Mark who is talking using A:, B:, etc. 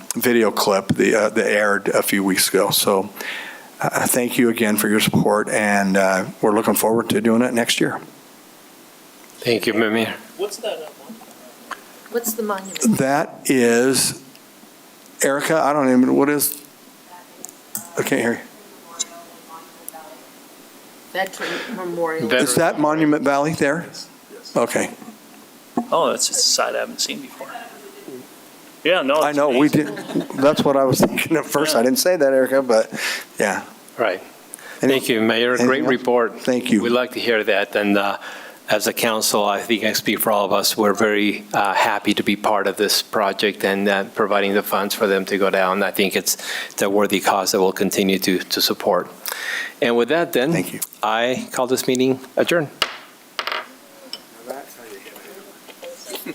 A: video clip that uh, that aired a few weeks ago. So uh, thank you again for your support, and uh, we're looking forward to doing it next year.
B: Thank you, Mimir.
C: What's that? uh, one?
D: What's the monument?
A: That is, Erica, I don't even, what is, I can't hear
D: Veteran Memorial.
A: you.
B: Veteran.
A: Is that Monument Valley there? Okay,
C: Oh, that's a side I haven't seen before. Yeah, no.
A: I
C: Oh, it's
A: know, we
C: amazing.
A: did, that's what I was thinking at first. I didn't say that, Erica, but, yeah.
B: Right.
A: Any-
B: Thank you, Mayor. Great
A: anything else?
B: report.
A: Thank you.
B: We like to hear that. And uh, as a council, I think I speak for all of us, we're very uh, happy to be part of this project and uh, providing the funds for them to go down. I think it's it's a worthy cause that we'll continue to to support. And with that, then.
A: Thank you.
B: I call this meeting adjourned.